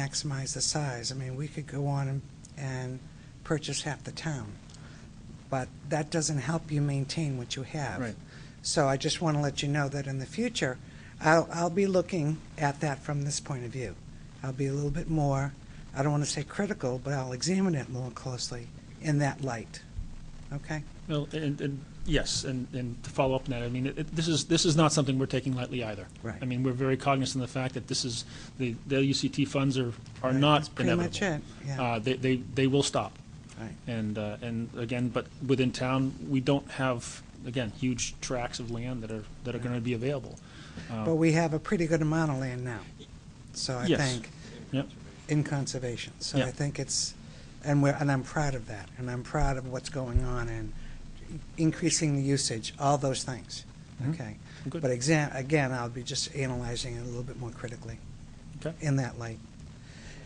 maximize the size. I mean, we could go on and- and purchase half the town, but that doesn't help you maintain what you have. Right. So I just want to let you know that in the future, I'll, I'll be looking at that from this point of view. I'll be a little bit more, I don't want to say critical, but I'll examine it more closely in that light. Okay? Well, and, and, yes, and, and to follow up on that, I mean, it- it, this is, this is not something we're taking lightly either. Right. I mean, we're very cognizant of the fact that this is, the, the LUCT funds are, are Right, not that's pretty inevitable. much it, yeah. Uh, they, they, they will stop. Right. And, uh, and again, but within town, we don't have, again, huge tracts of land that are, that are gonna be available. But we have a pretty good amount of land now, so I Yes. think. Yep, in conservation. So Yeah. I think it's, and we're, and I'm proud of that, and I'm proud of what's going on and increasing the usage, all those things. Mm-hmm. Mhm. Okay. Good. But exam, again, I'll be just analyzing it a little bit more critically okay, in that light.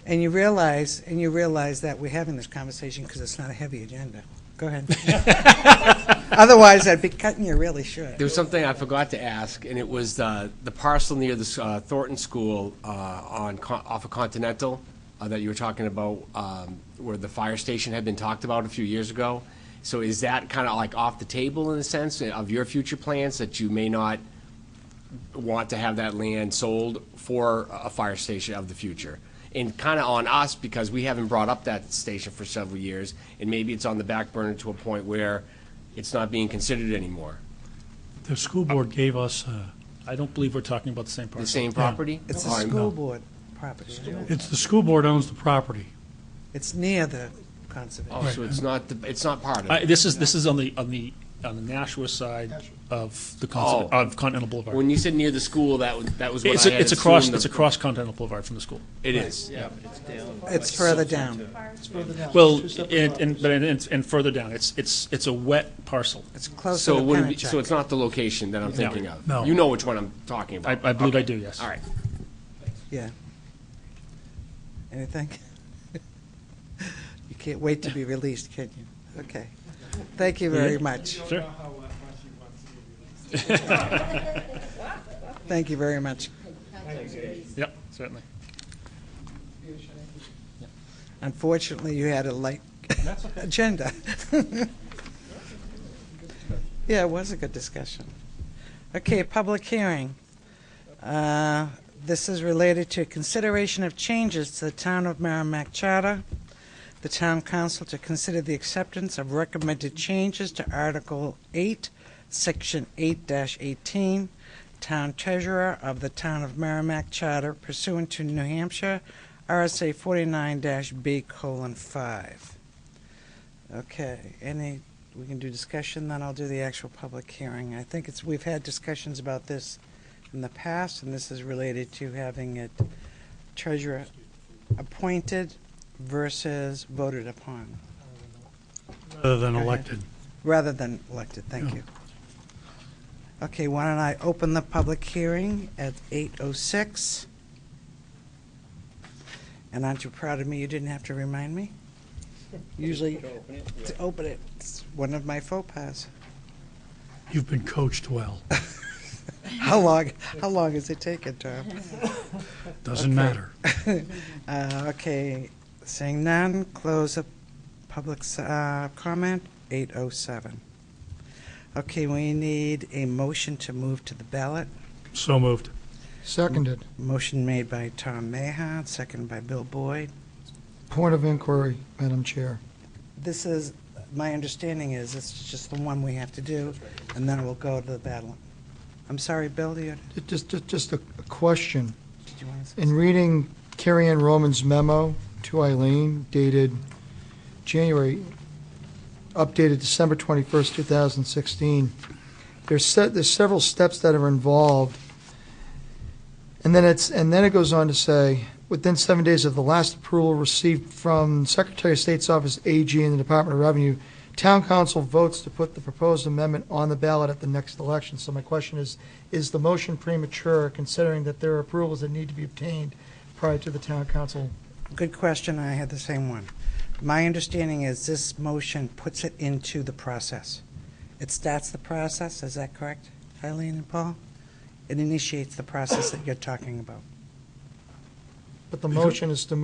And you realize, and you realize that we're having this conversation because it's not a heavy agenda. Go ahead. Otherwise, I'd be cutting you really short. There was something I forgot to ask, and it was uh, the parcel near the uh, Thornton School uh, on, Con- off of Continental uh, that you were talking about, um, where the fire station had been talked about a few years ago. So is that kind of like off the table in a sense uh, of your future plans, that you may not want to have that land sold for a fire station of the future? And kind of on us, because we haven't brought up that station for several years, and maybe it's on the back burner to a point where it's not being considered anymore. The school board gave us, uh, I don't believe we're talking about the same parcel. The same property? Oh, It's a All right. school board property. isn't it? it's the school board owns the property. It's near the Oh, conservation. so it's not, the- it's not part of I, it? this is, this is on the, on the, on the Nashua side of the, Oh. Con- of Continental Boulevard. When you said near the school, that was, that was what It's, I had it's across, assumed it's the- across Continental Boulevard from the school. It is, yeah. It's further down. Well, and, and, but, and, and further down, it's, it's, it's a wet parcel. It's closer So to it wouldn't be, so Pennachuck. it's not the location that I'm thinking of? No. You know which one I'm talking I, about? I believe I do, yes. All right. Yeah. Anything? You can't wait to be released, can you? Okay. Thank you very much. Sure. Thank you very much. Yep, certainly. Unfortunately, you had a light agenda. Yeah, it was a good discussion. Okay, public hearing. Uh, This is related to consideration of changes to the Town of Merrimack Charter. The Town Council to consider the acceptance of recommended changes to Article 8, Section 8-18, Town Treasurer of the Town of Merrimack Charter pursuant to New Hampshire RSA 49-B colon 5. Okay, any, we can do discussion, then I'll do the actual public hearing. I think it's, we've had discussions about this in the past, and this is related to having it treasurer appointed versus voted upon, Rather than ahead. elected. rather than elected. Thank Yeah. you. Okay, why don't I open the public hearing at 8:06? And aren't you proud of me? You didn't have to remind me? Usually, to open it, it's one of my faux pas. You've been coached well. How long, how long has it taken, Tom? Doesn't matter. Uh, okay, seeing none, close the public s- uh, comment, 8:07. Okay, we need a motion to move to the ballot. So moved. Seconded. Motion made by Tom Mahon, second by Bill Boyd. Point of inquiry, Madam Chair. This is, my understanding is, this is just the one we have to do, and then we'll go to the ballot. I'm sorry, Bill, you, Ju- Just, just- just a a question. did you want to say? In reading Carrie Ann Roman's memo to Eileen dated January, updated December 21st, 2016, there's, se- there's several steps that are involved. And then it's, and then it goes on to say, within seven days of the last approval received from Secretary of State's Office, AG, and the Department of Revenue, Town Council votes to put the proposed amendment on the ballot at the next election. So my question is, is the motion premature, considering that there are approvals that need to be obtained prior to the town council? Good question, I had the same one. My understanding is this motion puts it into the process. It starts the process, is that correct, Eileen and Paul? It initiates the process that you're talking about. But the motion is to